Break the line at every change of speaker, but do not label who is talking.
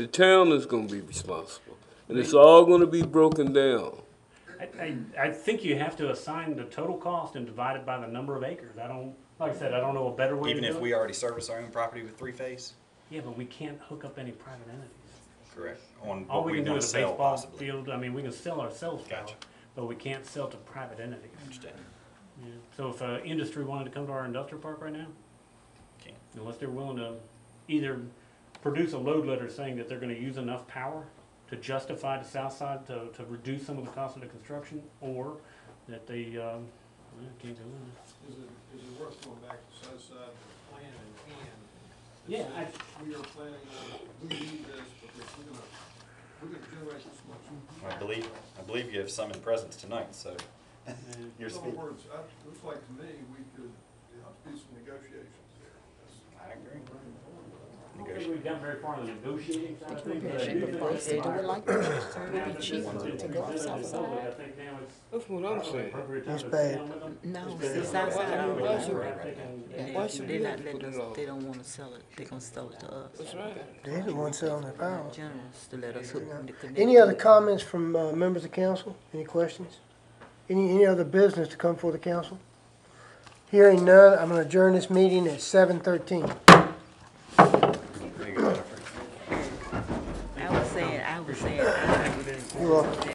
The town is gonna be responsible, and it's all gonna be broken down.
I, I, I think you have to assign the total cost and divide it by the number of acres. I don't, like I said, I don't know a better way to
Even
do it.
if we already service our own property with three-phase?
Yeah, but we can't hook up any private entities.
Correct. On
All
what
we
we
can do
want to
is a
sell
baseball
possibly.
field, I mean, we can sell ourselves power,
Gotcha.
but we can't sell to private entities.
Understand.
Yeah. So if, uh, industry wanted to come to our industrial park right now,
Can't.
unless they're willing to either produce a load letter saying that they're gonna use enough power to justify the south side to, to reduce some of the cost of the construction, or that they, um, well, can't do it.
Is it, is it worth going back to Southside plan in hand? that
Yeah, I-
says, We are planning on, we need this, but we're gonna, we're gonna generate this much.
I believe, I believe you have some in presence tonight, so
And
you're
In
speaking.
other words, I, looks like to me, we could, there ought to be some negotiations there. That's
I agree.
very important.
I don't think we've gotten very far in the negotiating side of things. but I do
Should the
think
place
it's
do it like that? Would it be cheaper to go
presented
south
to the public. I
side?
think now it's
That's what I'm
probably
saying.
appropriate time
That's
to sit
bad.
down with them.
No,
It's
see,
been-
south side, I don't
That's
like it.
right.
They-
Why should
They're
we
not
have to
letting
put it
us,
on?
they don't wanna sell it, they gonna sell it to us.
That's right.
They're the ones selling their power.
Generals to let us hook them to connect.
Any other
it.
comments from uh, members of council? Any questions? Any, any other business to come before the council? Hearing none, I'm gonna adjourn this meeting at seven thirteen.
There you go, Jennifer.
I was saying, I was saying, I
You're welcome.